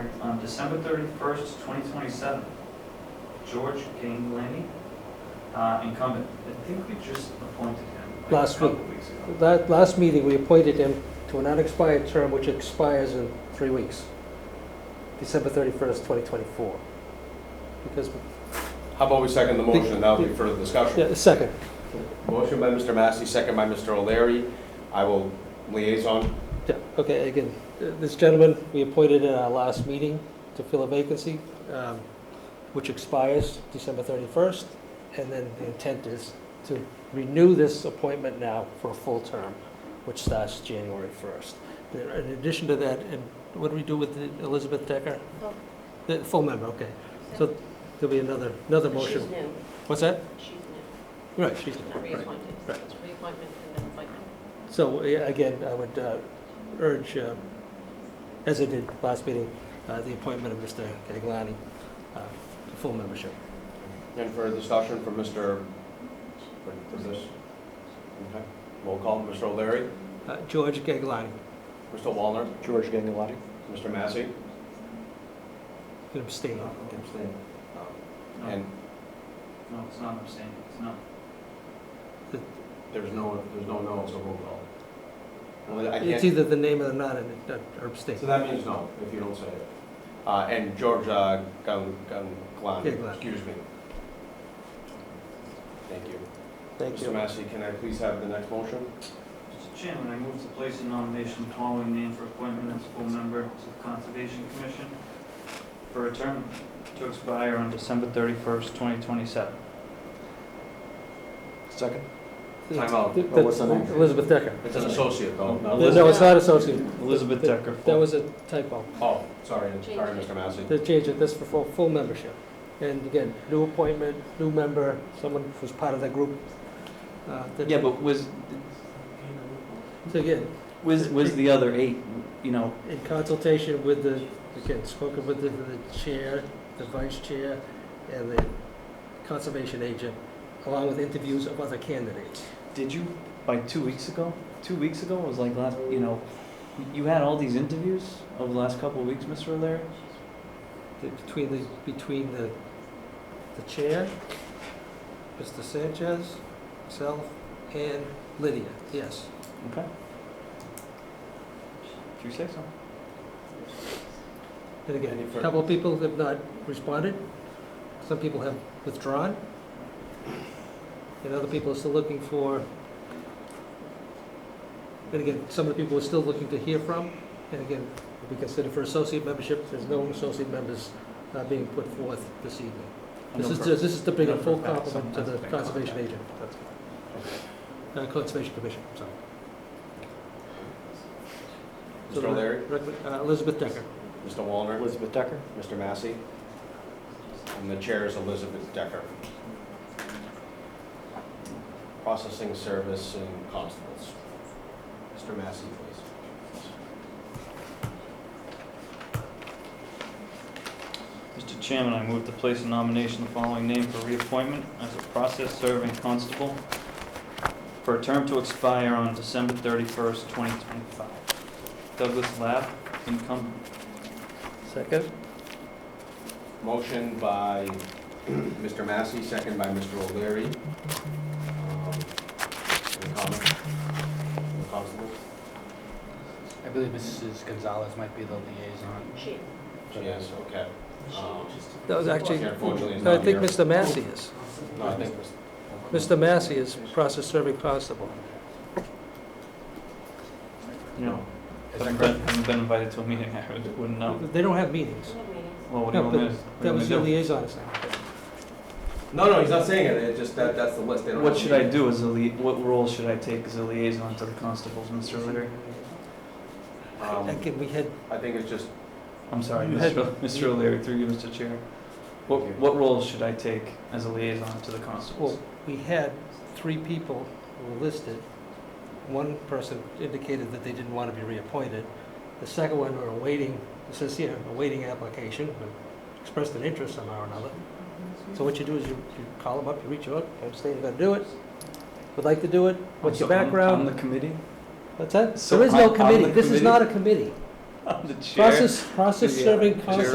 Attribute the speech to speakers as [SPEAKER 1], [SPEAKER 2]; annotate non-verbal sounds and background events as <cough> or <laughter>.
[SPEAKER 1] December thirty-first, twenty twenty-seven. George Ganglani, uh, incumbent. I think we just appointed him. like,
[SPEAKER 2] Last week.
[SPEAKER 1] A couple weeks ago.
[SPEAKER 2] That, last meeting, we appointed him to an unexpired term which expires in three weeks, December 31st, 2024. Because,
[SPEAKER 3] How about we second the motion, and that'll be further discussion.
[SPEAKER 2] yeah, second,
[SPEAKER 3] Motion by Mr. Massey, second by Mr. O'Leary. I will liaison.
[SPEAKER 2] yeah, okay, again, uh, this gentleman, we appointed in our last meeting to fill a vacancy, um, which expires December 31st, and then the intent is to renew this appointment now for a full term, which starts January 1st. There- In addition to that, and what do we do with the- Elizabeth Decker?
[SPEAKER 4] Full.
[SPEAKER 2] The full member, okay. So there'll be another, another motion.
[SPEAKER 4] She's new,
[SPEAKER 2] What's that?
[SPEAKER 4] she's new,
[SPEAKER 2] Right, she's,
[SPEAKER 4] she's not reappointed, so
[SPEAKER 2] Right.
[SPEAKER 4] it's reappointment and then appointment.
[SPEAKER 2] so yeah, again, I would uh, urge, uh, as I did last meeting, uh, the appointment of Mr. Gagliani uh, to full membership.
[SPEAKER 3] And further discussion from Mr., what is this? Okay. Roll call, Mr. O'Leary,
[SPEAKER 2] Uh, George Gagliani,
[SPEAKER 3] Mr. Wallner,
[SPEAKER 5] George Gangalati?
[SPEAKER 3] Mr. Massey.
[SPEAKER 2] can abstain.
[SPEAKER 1] No,
[SPEAKER 3] Um, And
[SPEAKER 1] No, it's not abstaining, it's not.
[SPEAKER 3] there's no, there's no no, so roll call. Well, I
[SPEAKER 2] It's
[SPEAKER 3] can't,
[SPEAKER 2] either the name or the not, and it- or abstain.
[SPEAKER 3] so that means no, if you don't say it. Uh, And George uh, Gun, Gun,
[SPEAKER 2] Ganglani.
[SPEAKER 3] Glan, excuse me. Thank you.
[SPEAKER 2] Thank
[SPEAKER 3] Mr.
[SPEAKER 2] you.
[SPEAKER 3] Massey, can I please have the next motion?
[SPEAKER 1] Mr. Chairman, I move to place a nomination of the following name for appointment as full member to the Conservation Commission for a term to expire on December thirty-first, twenty twenty-seven.
[SPEAKER 5] Second?
[SPEAKER 3] Time out.
[SPEAKER 2] Th-
[SPEAKER 5] What's the
[SPEAKER 2] that's
[SPEAKER 5] name?
[SPEAKER 2] Elizabeth Decker.
[SPEAKER 3] It's an associate, though. not-
[SPEAKER 2] No, it's not associated.
[SPEAKER 1] Elizabeth Decker.
[SPEAKER 2] That was a typo.
[SPEAKER 3] Oh, sorry,
[SPEAKER 4] Change
[SPEAKER 3] sorry,
[SPEAKER 4] it.
[SPEAKER 3] Mr. Massey.
[SPEAKER 2] to change it, this for full, full membership. And again, new appointment, new member, someone who's part of the group. uh, that-
[SPEAKER 6] Yeah, but was,
[SPEAKER 2] So again,
[SPEAKER 6] was, was the other eight, you know,
[SPEAKER 2] in consultation with the, again, spoken with the, the chair, the vice chair, and the conservation agent, along with interviews of other candidates.
[SPEAKER 6] did you, by two weeks ago? Two weeks ago, it was like last, you know, you had all these interviews over the last couple of weeks, Mr. O'Leary?
[SPEAKER 2] The- Between the, between the, the chair, Mr. Sanchez, myself, and Lydia, yes.
[SPEAKER 6] Okay. Did you say so?
[SPEAKER 2] And
[SPEAKER 3] Any
[SPEAKER 2] again, a
[SPEAKER 3] further-
[SPEAKER 2] couple of people have not responded, some people have withdrawn, and other people are still looking for, and again, some of the people are still looking to hear from, and again, we consider for associate membership, there's no associate members uh, being put forth this evening. This is, this is to bring a full complement to the conservation agent,
[SPEAKER 6] That's
[SPEAKER 2] uh, conservation commission, sorry. So
[SPEAKER 3] Mr. O'Leary,
[SPEAKER 2] recommend- uh, Elizabeth Decker.
[SPEAKER 3] Mr. Wallner,
[SPEAKER 5] Elizabeth Decker?
[SPEAKER 3] Mr. Massey, and the chair is Elizabeth Decker. Processing service and constables. Mr. Massey, please.
[SPEAKER 1] Mr. Chairman, I move to place a nomination of the following name for reappointment as a process serving constable for a term to expire on December thirty-first, twenty twenty-five. Douglas Lab, incumbent.
[SPEAKER 2] Second.
[SPEAKER 3] Motion by Mr. Massey, second by Mr. O'Leary. Um, Any comments? from the Constables?
[SPEAKER 7] I believe Mrs. Gonzalez might be the liaison.
[SPEAKER 4] She,
[SPEAKER 3] Yes, okay.
[SPEAKER 2] Oh,
[SPEAKER 3] Um,
[SPEAKER 2] That was actually,
[SPEAKER 3] she Unfortunately, is
[SPEAKER 2] no, I
[SPEAKER 3] not
[SPEAKER 2] think
[SPEAKER 3] here.
[SPEAKER 2] Mr. Massey is.
[SPEAKER 3] No, I think
[SPEAKER 2] Mr. Massey is process serving constable.
[SPEAKER 1] You know,
[SPEAKER 7] Is that
[SPEAKER 1] haven't
[SPEAKER 7] correct?
[SPEAKER 1] been, haven't been invited to a meeting, <laughs> I would- wouldn't know.
[SPEAKER 2] They don't have meetings.
[SPEAKER 4] doesn't have meetings.
[SPEAKER 1] Well, what do you
[SPEAKER 2] No,
[SPEAKER 1] want me to?
[SPEAKER 2] but
[SPEAKER 1] what do you
[SPEAKER 2] that
[SPEAKER 1] want me
[SPEAKER 2] was
[SPEAKER 1] to
[SPEAKER 2] your
[SPEAKER 1] do?
[SPEAKER 2] liaison assignment.
[SPEAKER 3] No, no, he's not saying it, it's just that, that's the list. They don't
[SPEAKER 6] What
[SPEAKER 3] have
[SPEAKER 6] should
[SPEAKER 3] to
[SPEAKER 6] I do as a lia, what role should I take as a liaison to the constables, Mr. O'Leary?
[SPEAKER 3] be. Um,
[SPEAKER 2] Again, we had,
[SPEAKER 3] I think it's just,
[SPEAKER 6] I'm sorry,
[SPEAKER 2] You had-
[SPEAKER 6] Mr. O- Mr. O'Leary, through you, Mr. Chair. What,
[SPEAKER 3] Thank you.
[SPEAKER 6] what role should I take as a liaison to the constables?
[SPEAKER 2] well, we had three people who were listed. One person indicated that they didn't want to be reappointed. The second one were awaiting, it says here, awaiting application, but expressed an interest somehow or another. So what you do is you, you call them up, you reach out, I'm saying you're gonna do it, would like to do it, what's your
[SPEAKER 6] So I'm- I'm
[SPEAKER 2] background?
[SPEAKER 6] the committee? <laughs>
[SPEAKER 2] What's that?
[SPEAKER 6] so
[SPEAKER 2] There is no
[SPEAKER 6] I'm- I'm the
[SPEAKER 2] committee, this is
[SPEAKER 6] committee?
[SPEAKER 2] not a committee.
[SPEAKER 6] I'm the chair?
[SPEAKER 2] Process, process
[SPEAKER 6] Yeah.
[SPEAKER 2] serving
[SPEAKER 6] Chair.
[SPEAKER 2] constable